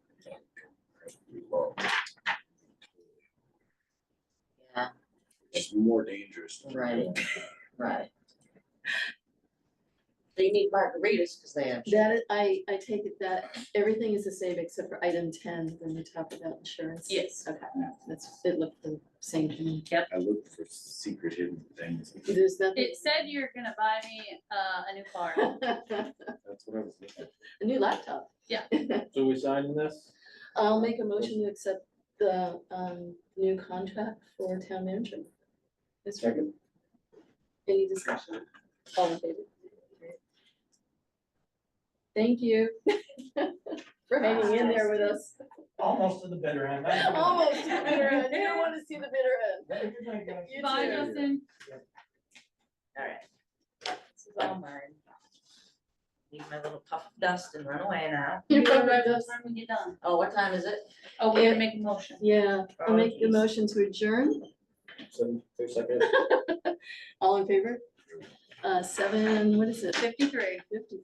it's more dangerous. Right, right. They need margaritas because they have. That, is- I, I take it that everything is the same except for item ten, when you talk about insurance. Yes. Okay, that's, it looked the same to me. I look for secret hidden things. There's nothing. It said you're gonna buy me uh a new car. A That's what I was looking new laptop. Yeah. So we signing this? I'll make a motion to accept the, um, new contract for town manager. Is there Second. any discussion? All in favor? Thank you. For hanging in there with us. Almost to the bitter end. I don't know. Almost to the bitter end. You don't wanna see the bitter end. What if you're not gonna- You Bye, too. Justin. Alright. This is all mine. Leave my little puff of dust and run away now. You You remember remember this? when we get done. Oh, what time is it? Oh, we're Yeah. gonna make a motion. Yeah, I'll make the Apologies. motion to adjourn, Seven, two seconds. all in favor? Uh, seven, what is it, Fifty-three. fifty?